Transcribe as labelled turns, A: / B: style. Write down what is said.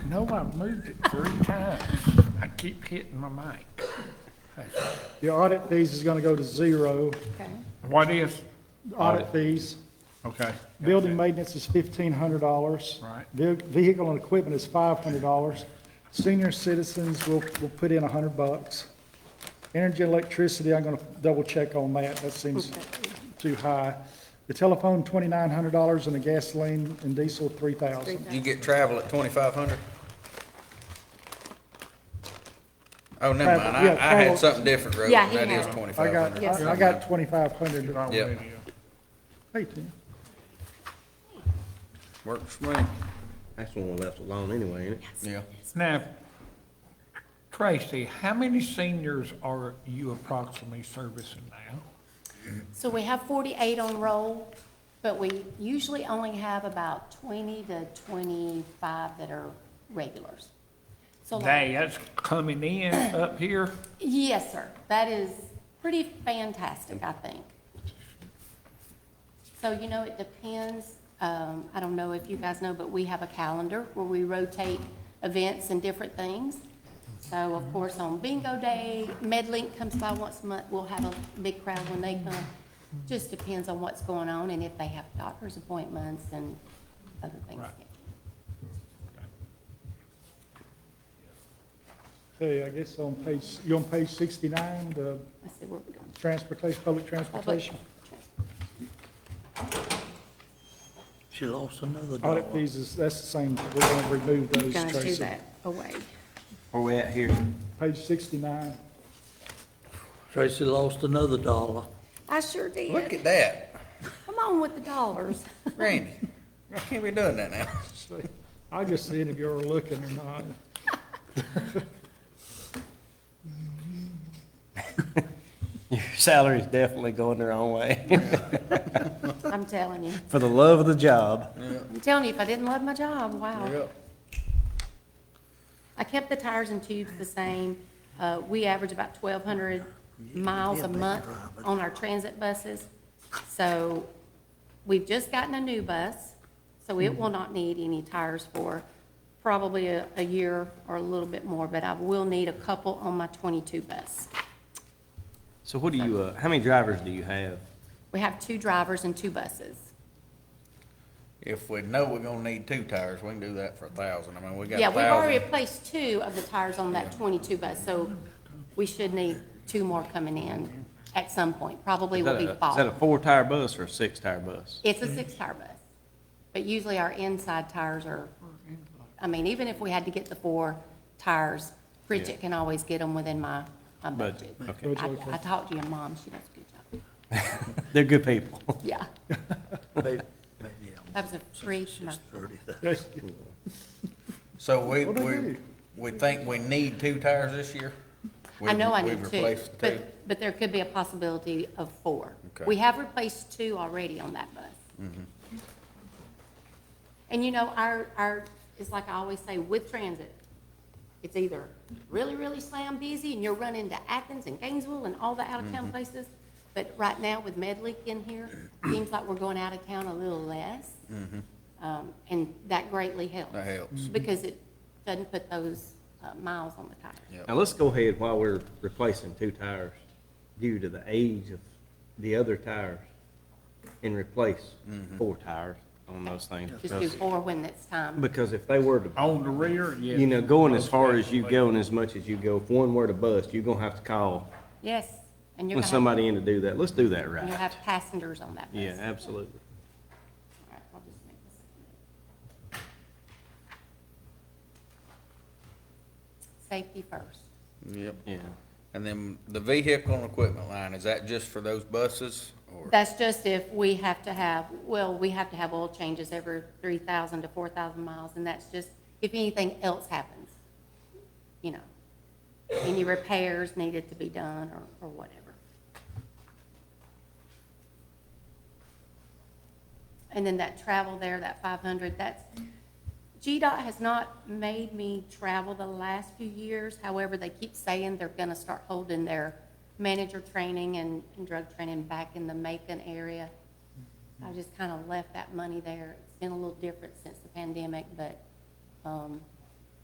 A: No, I've moved it three times. I keep hitting my mic.
B: Your audit fees is gonna go to zero,
C: Okay.
A: What is,
B: audit fees.
A: okay.
B: Building maintenance is fifteen hundred dollars.
A: Right.
B: Vehicle and equipment is five hundred dollars. Senior citizens will, will put in a hundred bucks. Energy and electricity, I'm gonna double check on that, that seems too high. The telephone, twenty-nine hundred dollars, and the gasoline and diesel, three thousand.
D: You get travel at twenty-five hundred? Oh, never
B: Travel,
D: mind, I,
B: yeah,
D: I had
B: travel.
D: something different, Rosie,
C: Yeah, he
D: that is
C: had.
B: I
D: twenty-five
B: got,
D: hundred.
C: Yes.
B: I I got twenty-five hundred.
A: Wrong
D: Yep.
A: video.
B: Hey, Tim.
D: Works for me.
E: That's the one we left alone anyway, ain't it?
D: Yeah.
A: Now, Tracy, how many seniors are you approximately servicing now?
C: So we have 48 on roll, but we usually only have about 20 to 25 that are regulars. So like-
A: They, that's coming in up here?
C: Yes, sir. That is pretty fantastic, I think. So, you know, it depends, um, I don't know if you guys know, but we have a calendar where we rotate events and different things. So of course, on bingo day, MedLink comes by once a month, we'll have a big crowd when they come. Just depends on what's going on and if they have doctor's appointments and other things.
A: Right.
B: Hey, I guess on page, you on page sixty-nine, the
C: Let's see where we're going.
B: transportation, public transportation.
F: She lost another dollar.
B: Audit fees is, that's the same, we're gonna remove those,
C: Gonna do
B: Tracy.
C: that away.
E: Where we at here?
B: Page sixty-nine.
F: Tracy lost another dollar.
C: I sure
D: Look
C: did.
D: at that,
C: Come on with the dollars.
D: Randy, I can't be doing that now.
B: I just seen if you were looking or not.
E: Your salary's definitely going the wrong way,
C: I'm telling you.
E: for the love of the job.
C: I'm telling you, if I didn't love my job, wow.
D: Yep.
C: I kept the tires and tubes the same. Uh, we average about twelve hundred miles a month on our transit buses. So we've just gotten a new bus, so it will not need any tires for probably a, a year or a little bit more, but I will need a couple on my twenty-two bus.
E: So what do you, uh, how many drivers do you have?
C: We have two drivers and two buses.
D: If we know we're gonna need two tires, we can do that for a thousand, I mean, we got
C: Yeah,
D: a
C: we've already
D: thousand.
C: replaced two of the tires on that twenty-two bus, so we should need two more coming in at some point, probably
E: Is
C: will
E: that
C: be
E: a- Is that a
C: fall.
E: four-tire bus or a six-tire bus?
C: It's a six-tire bus, but usually our inside tires are, I mean, even if we had to get the four tires, Bridget can always get them within my, my budget.
E: Budget, okay.
C: I, I talked to your mom, she does a good job,
E: They're good people.
C: yeah,
F: Maybe, maybe
C: that was a free, no.
F: six thirty.
B: That's-
D: So we,
B: What'd I
D: we,
B: do?
D: we think we need two tires this year?
C: I know I
D: We've-
C: need
D: we've
C: two,
D: replaced the two.
C: but, but there could be a possibility of four.
D: Okay. Mm-hmm.
C: We have replaced two already on that bus. And you know, our, our, it's like I always say, with transit, it's either really, really slam busy and you're running to Athens and Gainesville and all the
D: Mm-hmm.
C: out-of-town places. But right now with Medley in here, seems like we're going out of town a little less. Um, and that greatly helps.
D: Mm-hmm. That helps.
C: Because it doesn't put those, uh, miles on the tires.
E: Now, let's go ahead while we're replacing two tires due to the age of the other tires and replace four tires on those things.
C: Mm-hmm. Just do four when it's time.
E: Because if they were to
A: On the rear, yes.
E: you know, going as far as you go and as much as you go, if one were to bust, you're gonna have to call
C: Yes, and you're gonna
E: when
C: have,
E: somebody in to do that. Let's do that
C: and you'll
E: right.
C: have passengers on that bus.
E: Yeah, absolutely.
C: All right, I'll just make this. Safety first.
D: Yep.
E: Yeah.
D: And then the vehicle and equipment line, is that just for those buses or?
C: That's just if we have to have, well, we have to have oil changes every three thousand to four thousand miles, and that's just if anything else happens. You know, any repairs needed to be done or, or whatever. And then that travel there, that five hundred, that's, GDOT has not made me travel the last few years. However, they keep saying they're gonna start holding their manager training and, and drug training back in the Macon area. I just kinda left that money there. It's been a little different since the pandemic, but, um,